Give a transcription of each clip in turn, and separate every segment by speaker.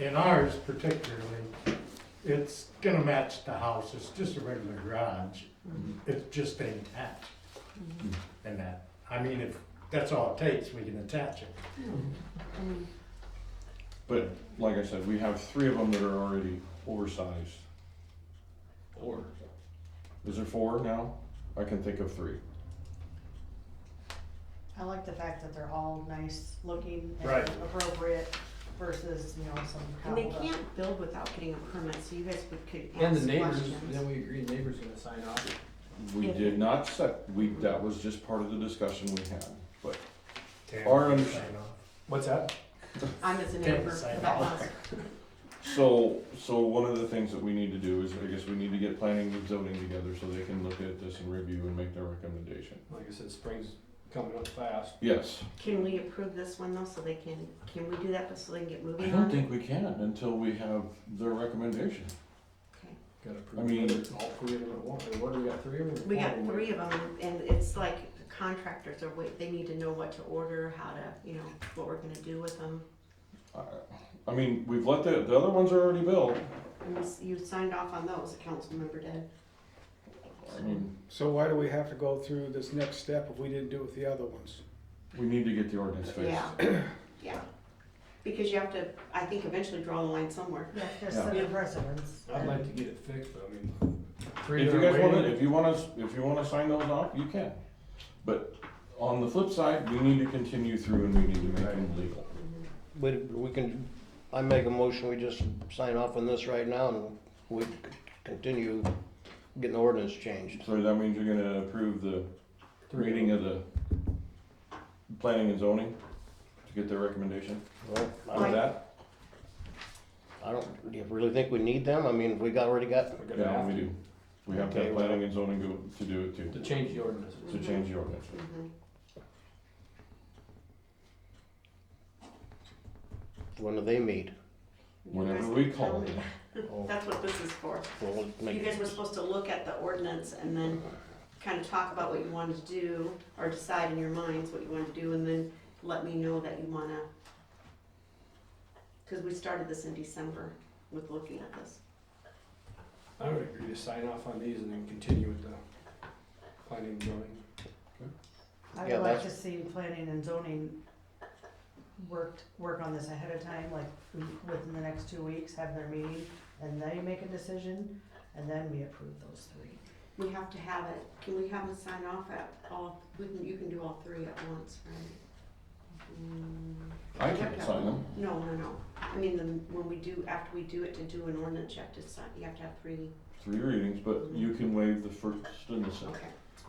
Speaker 1: In ours particularly, it's gonna match the house, it's just a regular garage,
Speaker 2: Mm-hmm.
Speaker 1: it's just been attached. And that, I mean, if that's all it takes, we can attach it.
Speaker 3: But like I said, we have three of them that are already oversized. Or, is there four now? I can think of three.
Speaker 4: I like the fact that they're all nice looking
Speaker 1: Right.
Speaker 4: and appropriate versus, you know, some.
Speaker 2: And they
Speaker 4: cobble-
Speaker 2: can't build without getting a permit, so you guys would could
Speaker 5: And the
Speaker 2: ask
Speaker 5: neighbors,
Speaker 2: questions.
Speaker 5: then we agreed the neighbor's gonna sign off.
Speaker 3: We
Speaker 2: Yeah.
Speaker 3: did not set, we, that was just part of the discussion we had, but
Speaker 1: Tam,
Speaker 3: Or under-
Speaker 1: sign off.
Speaker 5: What's that?
Speaker 2: I'm as a
Speaker 1: Can't
Speaker 2: neighbor
Speaker 1: sign
Speaker 2: for that
Speaker 1: off.
Speaker 2: house.
Speaker 3: So, so one of the things that we need to do is, I guess we need to get planning and zoning together so they can look at this and review and make their recommendation.
Speaker 5: Like I said, spring's coming up fast.
Speaker 3: Yes.
Speaker 2: Can we approve this one though, so they can, can we do that, so they can get
Speaker 3: I
Speaker 2: moving on?
Speaker 3: don't think we can until we have their recommendation.
Speaker 5: Gotta
Speaker 3: I
Speaker 5: prove
Speaker 3: mean-
Speaker 5: whether all three of them at once. What, do we got three of them?
Speaker 2: We got
Speaker 5: Four of them.
Speaker 2: three of them, and it's like contractors are wait, they need to know what to order, how to, you know, what we're gonna do with them.
Speaker 3: I, I mean, we've let the, the other ones are already built.
Speaker 2: And this- you signed off on those, the council member did.
Speaker 3: I mean,
Speaker 6: So why do we have to go through this next step if we didn't do it with the other ones?
Speaker 3: we need to get the ordinance fixed.
Speaker 2: Yeah, yeah. Because you have to, I think eventually draw the line somewhere.
Speaker 4: Yeah, there's
Speaker 3: Yeah.
Speaker 4: seven residents.
Speaker 5: I'd like to get it fixed, but I mean, three
Speaker 3: If
Speaker 5: that
Speaker 3: you
Speaker 5: are
Speaker 3: guys wanna,
Speaker 5: waiting.
Speaker 3: if you wanna, if you wanna sign those off, you can. But on the flip side, we need to continue through and we need to make them legal.
Speaker 7: But we can, I make a motion, we just sign off on this right now and we c- continue getting the ordinance changed.
Speaker 3: So that means you're gonna approve the
Speaker 5: Three.
Speaker 3: reading of the planning and zoning to get their recommendation
Speaker 7: Well,
Speaker 3: on
Speaker 7: I-
Speaker 3: that?
Speaker 7: I don't, do you really think we need them? I mean, we got, already got,
Speaker 5: We're gonna
Speaker 3: Yeah,
Speaker 5: have
Speaker 3: we
Speaker 5: to,
Speaker 3: do. We have to
Speaker 7: Okay,
Speaker 3: have
Speaker 7: well-
Speaker 3: planning and zoning go, to do it too,
Speaker 5: to change the ordinance.
Speaker 2: Mm-hmm.
Speaker 3: to change the ordinance.
Speaker 2: Mhm.
Speaker 7: when do they meet?
Speaker 2: You
Speaker 3: Whenever
Speaker 2: guys
Speaker 3: we
Speaker 2: can tell
Speaker 3: call
Speaker 2: me.
Speaker 3: them,
Speaker 7: Oh,
Speaker 2: That's what this is for.
Speaker 7: well, we'll
Speaker 2: You
Speaker 7: make-
Speaker 2: guys were supposed to look at the ordinance and then kind of talk about what you wanted to do or decide in your minds what you wanted to do and then let me know that you wanna. Cause we started this in December with looking at this.
Speaker 5: I would agree to sign off on these and then continue with the planning and zoning.
Speaker 4: I
Speaker 7: Yeah,
Speaker 4: would like
Speaker 7: that's-
Speaker 4: to see planning and zoning worked, work on this ahead of time, like we- within the next two weeks, have their meeting, and they make a decision, and then we approve those three.
Speaker 2: We have to have it, can we have them sign off at all, we can, you can do all three at once, right? Mm,
Speaker 3: I can't sign them.
Speaker 2: No, no, no, I mean, the- when we do, after we do it to do an ordinance, you have to sign, you have to have three,
Speaker 3: Three readings, but
Speaker 2: Mm-hmm.
Speaker 3: you can waive the first and the second.
Speaker 2: okay.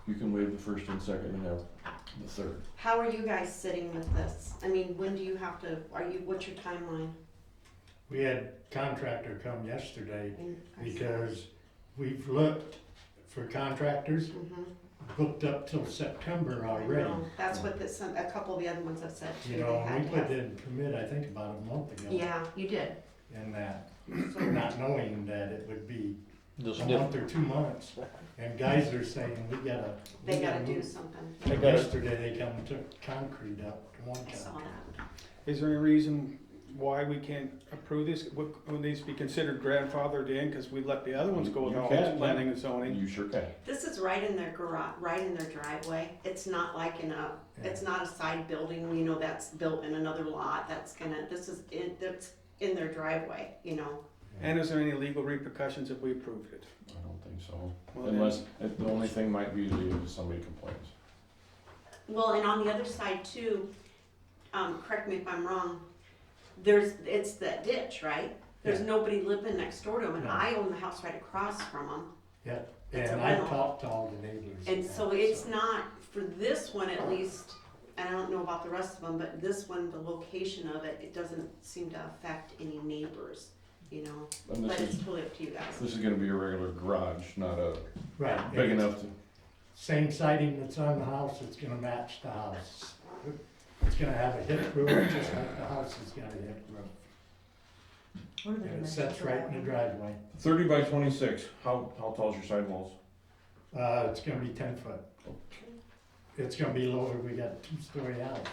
Speaker 3: You can waive the first and second and have the third.
Speaker 2: How are you guys sitting with this? I mean, when do you have to, are you, what's your timeline?
Speaker 1: We had contractor come yesterday
Speaker 2: And-
Speaker 1: because we've looked for contractors,
Speaker 2: Mhm.
Speaker 1: booked up till September already.
Speaker 2: No, That's what this, a couple of the other ones have said too.
Speaker 1: You
Speaker 2: they
Speaker 1: know,
Speaker 2: had
Speaker 1: we
Speaker 2: to
Speaker 1: put
Speaker 2: have-
Speaker 1: in commit, I think about a month ago.
Speaker 2: Yeah, you did.
Speaker 1: And that,
Speaker 2: So,
Speaker 1: not knowing that it would be
Speaker 7: This
Speaker 1: a
Speaker 7: diff-
Speaker 1: month or two months, and guys are saying, we gotta. we
Speaker 2: They gotta do
Speaker 1: move."
Speaker 2: something.
Speaker 7: They
Speaker 1: Like
Speaker 7: gotta-
Speaker 1: Yesterday, they come and took concrete up, one
Speaker 2: I saw
Speaker 1: concrete.
Speaker 2: that.
Speaker 6: Is there any reason why we can't approve this? Would would these be considered grandfathered in because we let the other ones go with
Speaker 3: You
Speaker 6: all
Speaker 3: can.
Speaker 6: this planning and zoning?
Speaker 3: You sure can.
Speaker 2: This is right in their garage, right in their driveway. It's not like in a, it's not a side building, you know, that's built in another lot. That's gonna, this is, in that's in their driveway, you know?
Speaker 6: And is there any legal repercussions if we approved it?
Speaker 3: I don't think so.
Speaker 6: Well, then-
Speaker 3: Unless, it- the only thing might be the- if somebody complains.
Speaker 2: Well, and on the other side too, um, correct me if I'm wrong, there's, it's that ditch, right? There's
Speaker 1: Yeah.
Speaker 2: nobody living next door to them, and
Speaker 1: No.
Speaker 2: I own the house right across from them.
Speaker 1: Yeah,
Speaker 2: It's a
Speaker 1: and I
Speaker 2: rental.
Speaker 1: talked to all the neighbors.
Speaker 2: And
Speaker 1: that,
Speaker 2: so it's not, for this one at least, and I don't know about the rest of them, but this one, the location of it, it doesn't seem to affect any neighbors, you know?
Speaker 3: And
Speaker 2: But
Speaker 3: this
Speaker 2: it's
Speaker 3: is,
Speaker 2: totally up to you guys.
Speaker 3: this is gonna be a regular garage, not a
Speaker 1: Right. and
Speaker 3: big
Speaker 1: it's
Speaker 3: enough to,
Speaker 1: Same siding that's on the house, it's gonna match the house. It's gonna have a hip roof, just like the house has got a hip roof.
Speaker 4: What are the
Speaker 1: And it
Speaker 4: dimensions
Speaker 1: sets
Speaker 4: of
Speaker 1: right in
Speaker 4: that
Speaker 1: the
Speaker 4: one?
Speaker 1: driveway.
Speaker 3: thirty by twenty-six, how, how tall's your sidewalls?
Speaker 1: Uh, it's gonna be ten foot. It's gonna be lower, we got a two-story house,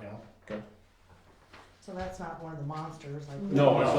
Speaker 1: you know?
Speaker 4: So that's not one of the monsters like.
Speaker 3: No, it's